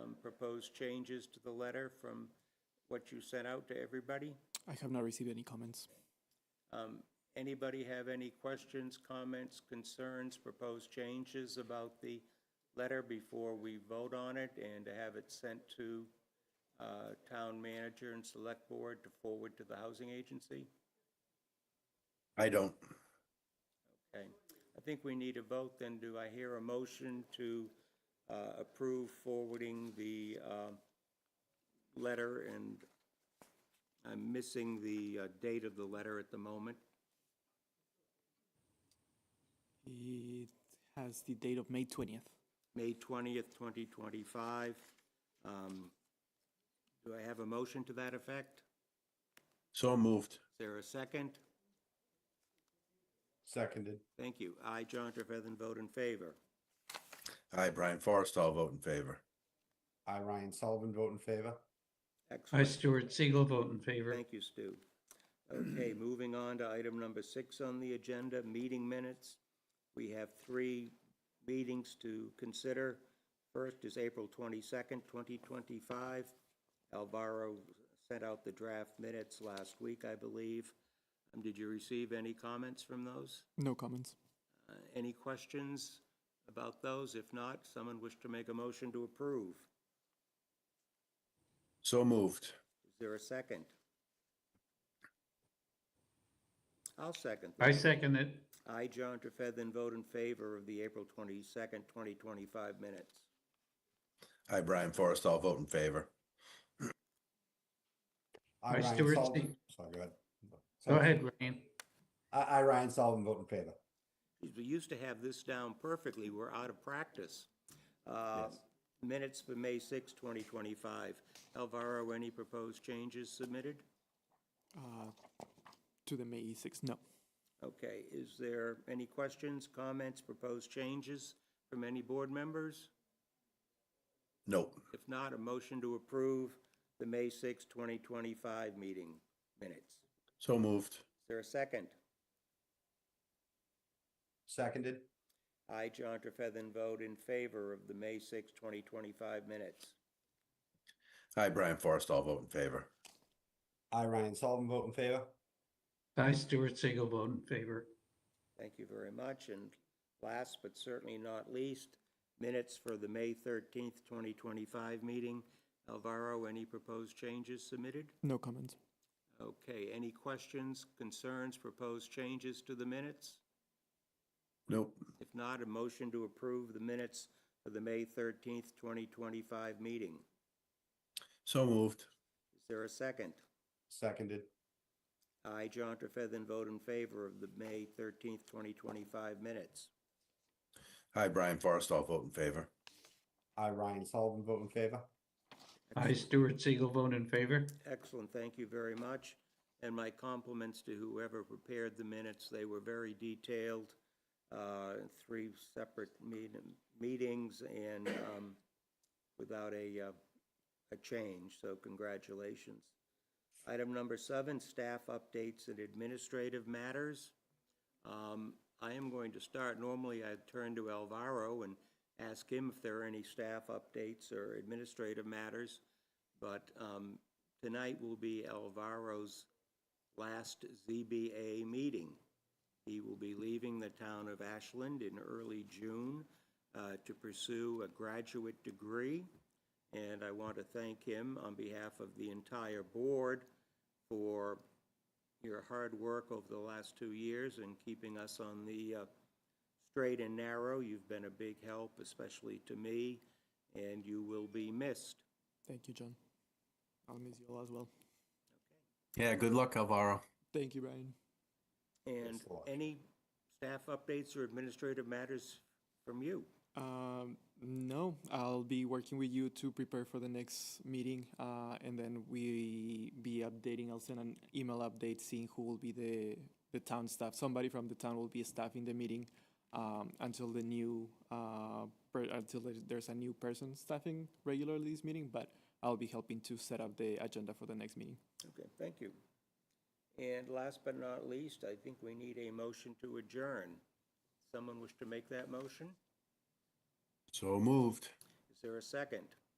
um, proposed changes to the letter from what you sent out to everybody? I have not received any comments. Um, Anybody have any questions, comments, concerns, proposed changes about the letter before we vote on it and to have it sent to uh, town manager and select board to forward to the housing agency? I don't. Okay, I think we need a vote, then do I hear a motion to uh, approve forwarding the um, letter, and I'm missing the uh, date of the letter at the moment. It has the date of May 20th. May 20th, 2025. Um, Do I have a motion to that effect? Is So moved. there a second? Seconded. Thank you. I, John Trefethan, vote in favor. Aye, Brian Forrest, I'll vote in favor. I, Ryan Sullivan, vote in favor. I, Excellent. Stuart Siegel, vote in favor. Thank you, Stu. Okay, moving on to item number six on the agenda, meeting minutes. We have three meetings to consider. First is April 22nd, 2025. Alvaro sent out the draft minutes last week, I believe. Um, Did you receive any comments from those? No comments. Uh, Any questions about those? If not, someone wish to make a motion to approve. So moved. Is there a second? I'll second. I that. second it. I, John Trefethan, vote in favor of the April 22nd, 2025 minutes. Aye, Brian Forrest, I'll vote in favor. I, Aye, Ryan Stuart Sullivan- Singh. Sorry, go ahead. Go Sorry. ahead, Ryan. I, I, Ryan Sullivan, vote in favor. We used to have this down perfectly. We're out of practice. Uh, Yes. Minutes for May 6, 2025. Alvaro, any proposed changes submitted? Uh, to the May 6th, no. Okay, is there any questions, comments, proposed changes from any board members? Nope. If not, a motion to approve the May 6, 2025 meeting minutes. So moved. Is there a second? Seconded. I, John Trefethan, vote in favor of the May 6, 2025 minutes. Aye, Brian Forrest, I'll vote in favor. I, Ryan Sullivan, vote in favor. I, Stuart Siegel, vote in favor. Thank you very much. And last but certainly not least, minutes for the May 13th, 2025 meeting. Alvaro, any proposed changes submitted? No comments. Okay, any questions, concerns, proposed changes to the minutes? Nope. If not, a motion to approve the minutes for the May 13th, 2025 meeting. So moved. Is there a second? Seconded. I, John Trefethan, vote in favor of the May 13th, 2025 minutes. Aye, Brian Forrest, I'll vote in favor. I, Ryan Sullivan, vote in favor. I, Stuart Siegel, vote in favor. Excellent, thank you very much. And my compliments to whoever prepared the minutes. They were very detailed, uh, three separate meet- meetings and um, without a, uh, a change, so congratulations. Item number seven, staff updates and administrative matters. Um, I am going to start, normally I turn to Alvaro and ask him if there are any staff updates or administrative matters. But um, tonight will be Alvaro's last ZBA meeting. He will be leaving the town of Ashland in early June uh, to pursue a graduate degree. And I want to thank him on behalf of the entire board for your hard work over the last two years and keeping us on the uh, straight and narrow. You've been a big help, especially to me, and you will be missed. Thank you, John. I'll miss you all as well. Yeah, good luck, Alvaro. Thank you, Brian. And Thanks a lot. any staff updates or administrative matters from you? Um, no, I'll be working with you to prepare for the next meeting, uh, and then we be updating. I'll send an email update seeing who will be the the town staff. Somebody from the town will be staffing the meeting um, until the new uh, per, until there- there's a new person staffing regularly this meeting. But I'll be helping to set up the agenda for the next meeting. Okay, thank you. And last but not least, I think we need a motion to adjourn. Someone wish to make that motion? So moved. Is there a second?